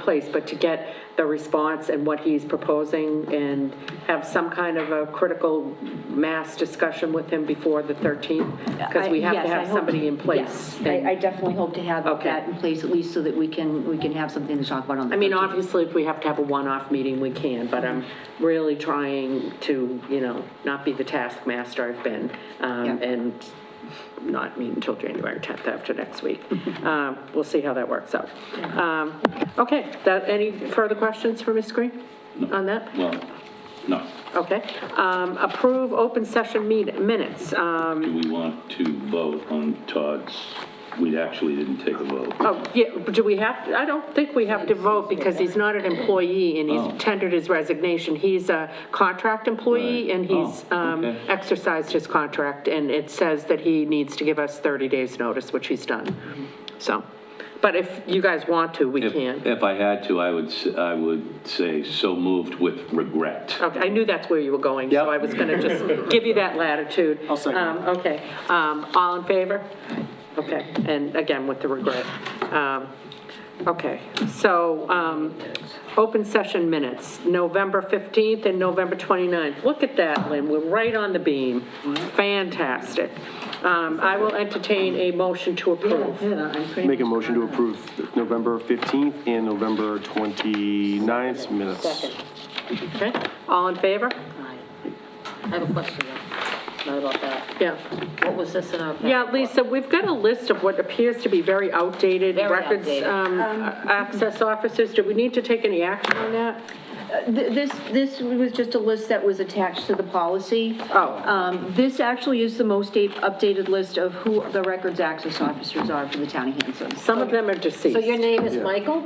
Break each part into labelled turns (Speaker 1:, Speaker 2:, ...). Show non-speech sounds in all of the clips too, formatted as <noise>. Speaker 1: place, but to get the response and what he's proposing and have some kind of a critical mass discussion with him before the 13th? Because we have
Speaker 2: I-
Speaker 1: to
Speaker 2: yes, I
Speaker 1: have
Speaker 2: hope-
Speaker 1: somebody in place.
Speaker 2: yes. I I definitely hope to have
Speaker 1: Okay.
Speaker 2: that in place, at least so that we can, we can have something to talk about on the
Speaker 1: I mean,
Speaker 2: 13th.
Speaker 1: obviously, if we have to have a one-off meeting, we can, but I'm really trying to, you know, not be the taskmaster I've been, um,
Speaker 2: Yeah.
Speaker 1: and not meet until January 10th after next
Speaker 2: <laughs>
Speaker 1: week. Um, We'll see how that works out. Um, Okay, that, any further questions for Ms. Green on that?
Speaker 3: Well, no.
Speaker 1: Okay. Um, Approve open session meet- minutes. Um,
Speaker 3: Do we want to vote on Todd's? We actually didn't take a vote.
Speaker 1: Oh, yeah, but do we have, to- I don't think we have to vote because he's not an employee and
Speaker 3: Oh.
Speaker 1: he's tendered his resignation. He's a contract employee
Speaker 3: Right.
Speaker 1: and he's
Speaker 3: Oh,
Speaker 1: um,
Speaker 3: okay.
Speaker 1: exercised his contract and it says that he needs to give us 30 days' notice, which he's done. So, but if you guys want to, we
Speaker 3: If-
Speaker 1: can.
Speaker 3: If I had to, I would, s- I would say so moved with regret.
Speaker 1: Okay, I knew that's where you were going, so
Speaker 4: Yep.
Speaker 1: I was going to just give you that latitude.
Speaker 4: I'll second
Speaker 1: Um, Okay, Um, all in favor? Okay, and again, with the regret. Um, Okay, so, um, open session minutes, November 15th and November 29th. Look at that, Lynn, we're right on the beam. Fantastic. Um, I will entertain a motion to approve.
Speaker 4: Make a motion to approve November 15th and November 29th minutes.
Speaker 1: Okay, all in favor?
Speaker 5: Aye. I have a question though, not about that.
Speaker 1: Yeah.
Speaker 5: What was this in our? packet
Speaker 1: Yeah,
Speaker 5: for?
Speaker 1: Lisa, we've got a list of what appears to be very outdated
Speaker 5: Very
Speaker 1: records,
Speaker 5: outdated.
Speaker 1: um, access officers. Do we need to take any action on that?
Speaker 2: Th- This, this was just a list that was attached to the policy.
Speaker 1: Oh.
Speaker 2: Um, This actually is the most up- updated list of who the records access officers are for the town of Hanson.
Speaker 1: Some of them are
Speaker 5: So your
Speaker 1: deceased.
Speaker 5: name is Michael?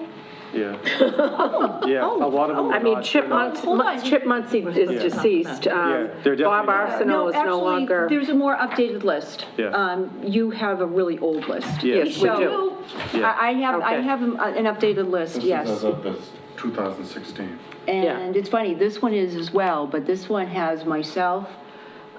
Speaker 4: Yeah. <laughs> Yeah, a lot of them
Speaker 1: I
Speaker 4: are
Speaker 1: mean,
Speaker 4: not.
Speaker 1: Chip
Speaker 2: hold on.
Speaker 1: Muncy, Chip Muncy is deceased. um,
Speaker 4: they're definitely
Speaker 1: Bob
Speaker 4: not.
Speaker 1: Arsenal is no
Speaker 2: Actually,
Speaker 1: longer.
Speaker 2: there's a more updated list.
Speaker 4: Yeah.
Speaker 2: Um, You have a really old list.
Speaker 1: Yes, we
Speaker 2: So-
Speaker 1: do.
Speaker 4: Yeah.
Speaker 2: I I have, I
Speaker 1: Okay.
Speaker 2: have an an updated list, yes.
Speaker 6: This is as of this 2016.
Speaker 2: And it's funny, this one is as well, but this one has myself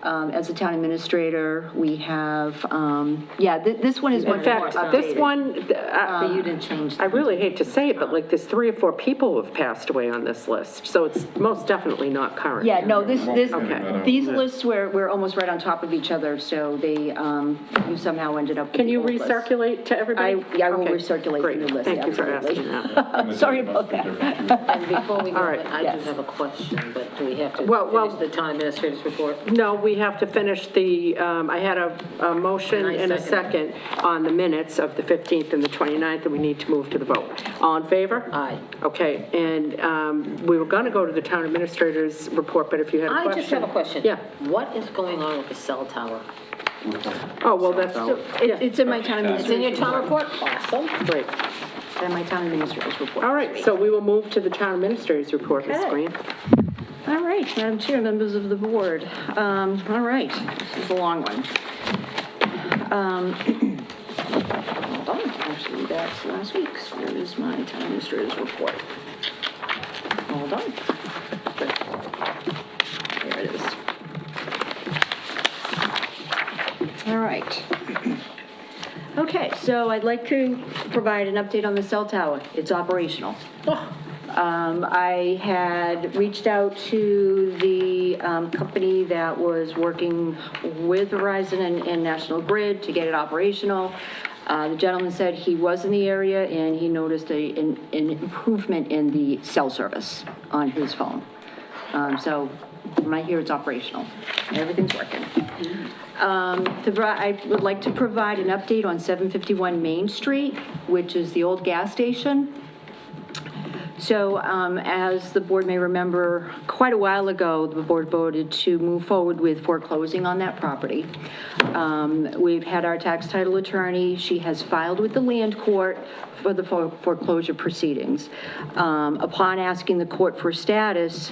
Speaker 2: um, as the town administrator. We have, um, yeah, thi- this one is
Speaker 1: In
Speaker 2: much more Um,
Speaker 1: fact, this
Speaker 2: updated. Uh,
Speaker 1: one, th-
Speaker 2: But
Speaker 1: I
Speaker 2: you didn't change.
Speaker 1: I really hate to say it, but like, there's three or four people who have passed away on this list, so it's most definitely not current.
Speaker 2: Yeah, no, this, this,
Speaker 6: Okay.
Speaker 2: these lists were, were almost right on top of each other, so they, um, you somehow ended up with
Speaker 1: Can
Speaker 2: the
Speaker 1: you
Speaker 2: old list.
Speaker 1: recirculate to everybody?
Speaker 2: I- yeah, I will
Speaker 1: Okay,
Speaker 2: recirculate the
Speaker 1: great.
Speaker 2: new list,
Speaker 1: Thank you for
Speaker 2: absolutely.
Speaker 1: asking
Speaker 2: <laughs>
Speaker 1: that.
Speaker 2: Oh, Sorry about that. <laughs>
Speaker 5: And before we go,
Speaker 1: All right,
Speaker 5: I do
Speaker 2: yes.
Speaker 5: have a question, but do we have to
Speaker 1: Well, well-
Speaker 5: finish the town administrator's report?
Speaker 1: No, we have to finish the, um, I had a, a motion
Speaker 5: And I
Speaker 1: and a
Speaker 5: second
Speaker 1: second on the minutes of the 15th and the 29th, and we need to move to the vote. All in favor?
Speaker 5: Aye.
Speaker 1: Okay, and um, we were going to go to the town administrator's report, but if you had a question.
Speaker 5: I just have a question.
Speaker 1: Yeah.
Speaker 5: What is going on with the cell tower?
Speaker 1: Oh, well, that's,
Speaker 2: So
Speaker 1: yeah,
Speaker 2: it- It's in my town
Speaker 5: It's in
Speaker 2: administrator's,
Speaker 5: your town report? Awesome.
Speaker 1: great.
Speaker 2: it's in my town administrator's report.
Speaker 1: All right, so we will move to the town administrator's report, Ms.
Speaker 2: Okay.
Speaker 1: Green.
Speaker 2: All right, Madam Chair, members of the board. Um, All right, this is a long one. Um, hold on, Actually, that's last week's. Where is my town administrator's report? Hold on. There it is. All right. Okay, so I'd like to provide an update on the cell tower. It's operational. Um, I had reached out to the, um, company that was working with Verizon and, and National Grid to get it operational. Uh, the gentleman said he was in the area and he noticed a, an, an improvement in the cell service on his phone. Um, so when I hear it's operational, everything's working. Um, to bri- I would like to provide an update on 751 Main Street, which is the old gas station. So um, as the board may remember, quite a while ago, the board voted to move forward with foreclosing on that property. Um, We've had our tax title attorney, she has filed with the land court for the fore- foreclosure proceedings. Um, Upon asking the court for status,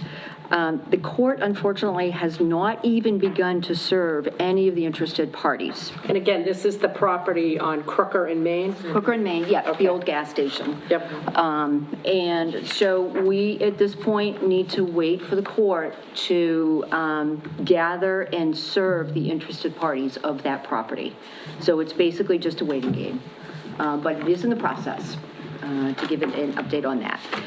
Speaker 2: um, the court unfortunately has not even begun to serve any of the interested parties.
Speaker 1: And again, this is the property on Crooker in Maine.
Speaker 2: Hooker and Main, yeah, the old gas station.
Speaker 1: Yep.
Speaker 2: Um, And so we, at this point, need to wait for the court to um, gather and serve the interested parties of that property. So it's basically just a waiting game, uh, but it is in the process. uh, to give an an update on that.